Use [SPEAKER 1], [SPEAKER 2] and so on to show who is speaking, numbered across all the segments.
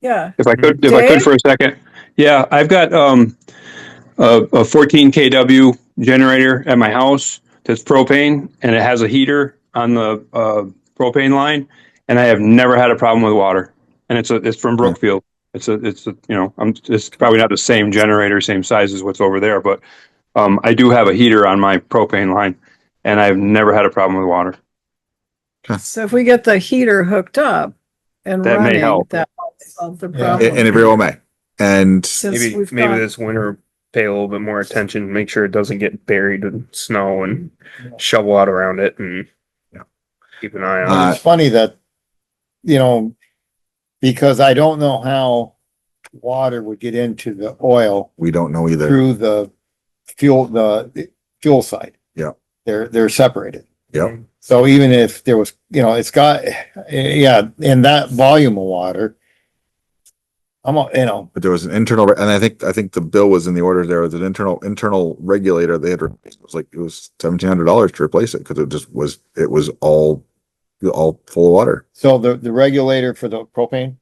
[SPEAKER 1] Yeah,
[SPEAKER 2] If I could, if I could
[SPEAKER 1] Dave?
[SPEAKER 2] for a second. Yeah, I've got, um, a, a fourteen KW generator at my house that's propane and it has a heater on the, uh, propane line. And I have never had a problem with water. And it's a, it's from Brookfield. It's a, it's a, you know, I'm, it's probably not the same generator, same size as what's over there, but, um, I do have a heater on my propane line and I've never had a problem with water.
[SPEAKER 1] so if we get the heater hooked up and
[SPEAKER 2] That may
[SPEAKER 1] running,
[SPEAKER 2] help.
[SPEAKER 1] that might solve the
[SPEAKER 3] Yeah.
[SPEAKER 1] problem.
[SPEAKER 4] and it very well may. And
[SPEAKER 1] Since
[SPEAKER 3] Maybe,
[SPEAKER 1] we've
[SPEAKER 3] maybe
[SPEAKER 1] got-
[SPEAKER 3] this winter, pay a little bit more attention, make sure it doesn't get buried in snow and shovel out around it and
[SPEAKER 4] Yeah.
[SPEAKER 3] keep an eye on
[SPEAKER 4] Uh,
[SPEAKER 3] it.
[SPEAKER 5] It's funny that, you know, because I don't know how water would get into the oil
[SPEAKER 4] we don't know either.
[SPEAKER 5] through the fuel, the the fuel side.
[SPEAKER 4] Yeah.
[SPEAKER 5] They're, they're separated.
[SPEAKER 4] Yep.
[SPEAKER 5] So even if there was, you know, it's got, yeah, in that volume of water, I'm, a- you know,
[SPEAKER 4] But there was an internal, and I think, I think the bill was in the order there was an internal, internal regulator. They had, replaced. it was like, it was seventeen hundred dollars to replace it because it just was, it was all, all full of water.
[SPEAKER 5] so the, the regulator for the propane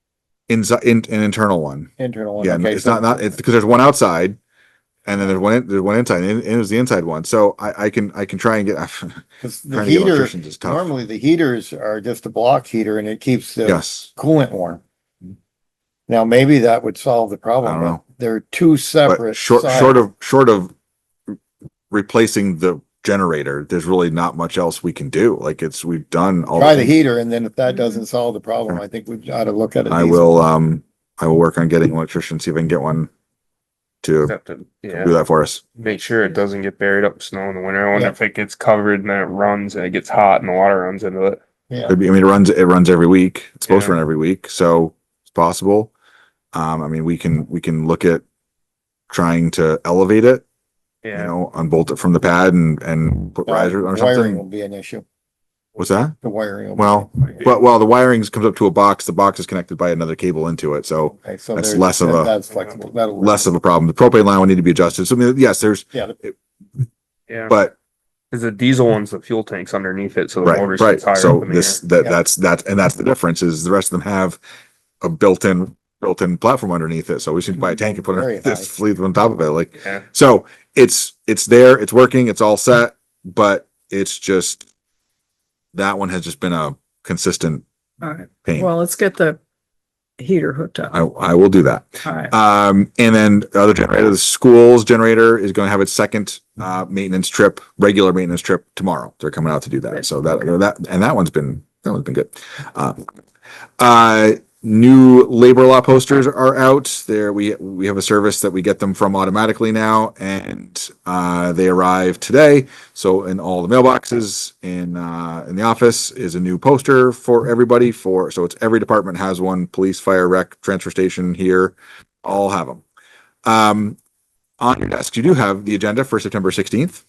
[SPEAKER 4] Inside, in, an internal one.
[SPEAKER 5] internal. one,
[SPEAKER 4] Yeah,
[SPEAKER 5] okay,
[SPEAKER 4] it's
[SPEAKER 5] so-
[SPEAKER 4] not, not, it's because there's one outside. And then there's one, in- there's one inside and it was the inside one. So I, I can, I can try and get,
[SPEAKER 5] 'cause The
[SPEAKER 4] trying to get
[SPEAKER 5] heater,
[SPEAKER 4] electricians is tough.
[SPEAKER 5] normally uh, the heaters are just a block heater and it keeps the
[SPEAKER 4] Yes.
[SPEAKER 5] coolant warm. Now, maybe that would solve the
[SPEAKER 4] I
[SPEAKER 5] problem,
[SPEAKER 4] don't know.
[SPEAKER 5] but they're two separate.
[SPEAKER 4] But short,
[SPEAKER 5] sides.
[SPEAKER 4] short of, short of replacing the generator, there's really not much else we can do. Like it's, we've done all.
[SPEAKER 5] Try the
[SPEAKER 4] things.
[SPEAKER 5] heater and then if that doesn't solve the problem, I think we ought to look at it.
[SPEAKER 4] I will, um, I will work on getting an electrician, see if I can get one to
[SPEAKER 3] Have to-
[SPEAKER 4] do
[SPEAKER 3] Yeah,
[SPEAKER 4] that for us.
[SPEAKER 3] make sure it doesn't get buried up in snow in the winter. I wonder if it gets covered and then it runs and it gets hot and the water runs into it.
[SPEAKER 5] Yeah,
[SPEAKER 4] I mean, it runs, it runs every week. It's supposed to
[SPEAKER 3] Yeah.
[SPEAKER 4] run every week, so it's possible. Um, I mean, we can, we can look at trying to elevate it, you
[SPEAKER 3] Yeah.
[SPEAKER 4] know, unbolt it from the pad and, and put risers
[SPEAKER 5] The
[SPEAKER 4] or
[SPEAKER 5] wiring will
[SPEAKER 4] something.
[SPEAKER 5] be an issue,
[SPEAKER 4] What's that?
[SPEAKER 5] the wiring. will be-
[SPEAKER 4] Well, But while the wiring comes up to a box, the box is connected by another cable into it, so
[SPEAKER 5] Okay, so
[SPEAKER 4] that's
[SPEAKER 5] there's-
[SPEAKER 4] less of
[SPEAKER 5] that-
[SPEAKER 4] a-
[SPEAKER 5] That's flexible, that'll. work.
[SPEAKER 4] less of a problem. The propane line would need to be adjusted. So I mean, yes, there's,
[SPEAKER 3] Yeah,
[SPEAKER 4] but
[SPEAKER 3] because the diesel one's the fuel tanks underneath it, so the
[SPEAKER 4] right,
[SPEAKER 3] motor
[SPEAKER 4] right.
[SPEAKER 3] sits higher
[SPEAKER 4] So
[SPEAKER 3] up in the
[SPEAKER 4] this,
[SPEAKER 3] air.
[SPEAKER 4] that,
[SPEAKER 5] Yeah.
[SPEAKER 4] that's, that's, and that's the difference is the rest of them have a built-in, built-in platform underneath it. So we should buy a tank and put
[SPEAKER 5] Very
[SPEAKER 4] it, this
[SPEAKER 5] nice.
[SPEAKER 4] fleet on top of it. Like,
[SPEAKER 3] Yeah,
[SPEAKER 4] so it's, it's there, it's working, it's all set, but it's just, that one has just been a consistent
[SPEAKER 1] All right,
[SPEAKER 4] pain.
[SPEAKER 1] well, let's get the heater hooked
[SPEAKER 4] I,
[SPEAKER 1] up.
[SPEAKER 4] I will do that.
[SPEAKER 1] All right,
[SPEAKER 4] Um, and then the other generator, the school's generator is going to have its second, uh, maintenance trip, regular maintenance trip tomorrow. They're coming out to do that.
[SPEAKER 1] Good.
[SPEAKER 4] So that, that, and that one's been, that one's been good. Uh, uh, new labor law posters are out there. We, we have a service that we get them from automatically now and, uh, they arrive today. So in all the mailboxes in, uh, in the office is a new poster for everybody for, so it's every department has one, police, fire, rec, transfer station here all have them. Um, on your desk, you do have the agenda for September 16th.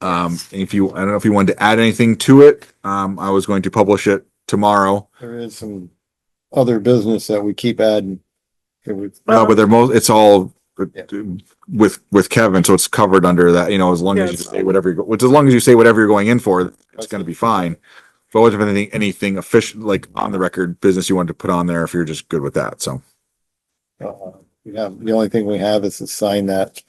[SPEAKER 4] Um, if you, I don't know if you wanted to add anything to it. Um, I was going to publish it tomorrow,
[SPEAKER 5] There is some other business that we keep adding. It would-
[SPEAKER 4] uh, but they're most, it's all
[SPEAKER 5] Yeah.
[SPEAKER 4] with, with Kevin. So it's covered under that, you know, as long as you
[SPEAKER 1] Yes.
[SPEAKER 4] say whatever, you go- which as long as you say whatever you're going in for, it's going to be fine. But was there anything, anything official, like on the record business you wanted to put on there if you're just good with that? So.
[SPEAKER 5] Uh, We have, the only thing we have is to sign that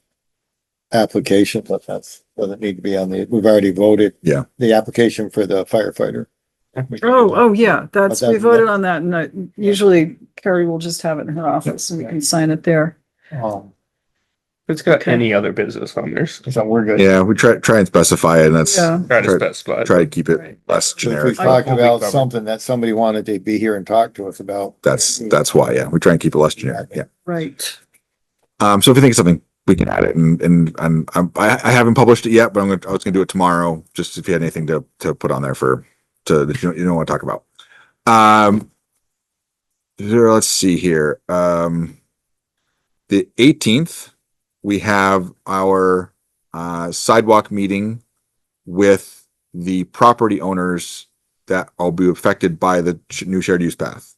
[SPEAKER 5] application, but that's, doesn't need to be on the, we've already voted.
[SPEAKER 4] Yeah.
[SPEAKER 5] The application for the firefighter. We can do
[SPEAKER 1] oh,
[SPEAKER 5] that.
[SPEAKER 1] oh, yeah, that's, we
[SPEAKER 5] that-
[SPEAKER 1] voted on that, and I- usually Carrie will just have it in her office, and we can sign it there.
[SPEAKER 3] oh.
[SPEAKER 5] Um,
[SPEAKER 3] it's got
[SPEAKER 1] Okay.
[SPEAKER 3] any other business on there. so
[SPEAKER 5] So we're good.
[SPEAKER 4] Yeah, we try, try and specify it and that's,
[SPEAKER 1] Yeah,
[SPEAKER 3] Try to
[SPEAKER 4] Try-
[SPEAKER 3] specify.
[SPEAKER 4] try to keep it
[SPEAKER 1] right.
[SPEAKER 4] less
[SPEAKER 5] So If
[SPEAKER 4] generic.
[SPEAKER 5] we talked
[SPEAKER 3] We'll be
[SPEAKER 5] about
[SPEAKER 3] covered.
[SPEAKER 5] something that somebody wanted to be here and talk to us about.
[SPEAKER 4] That's, that's why, yeah, we try and keep it less generic, yeah.
[SPEAKER 1] right.
[SPEAKER 4] Um, so if you think of something, we can add it and, and, and I'm, I, I haven't published it yet, but I'm gonna, I was gonna do it tomorrow, just if you had anything to, to put on there for, to, that you don't, you don't wanna talk about. Um, there- let's see here, um, the eighteenth, we have our, uh, sidewalk meeting with the property owners that will be affected by the ch- new shared use path.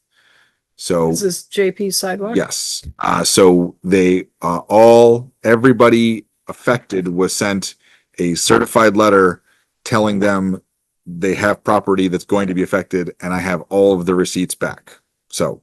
[SPEAKER 4] So.
[SPEAKER 1] Is this JP sidewalk?
[SPEAKER 4] Yes. Uh, so they, uh, all, everybody affected was sent a certified letter telling them they have property that's going to be affected and I have all of the receipts back. So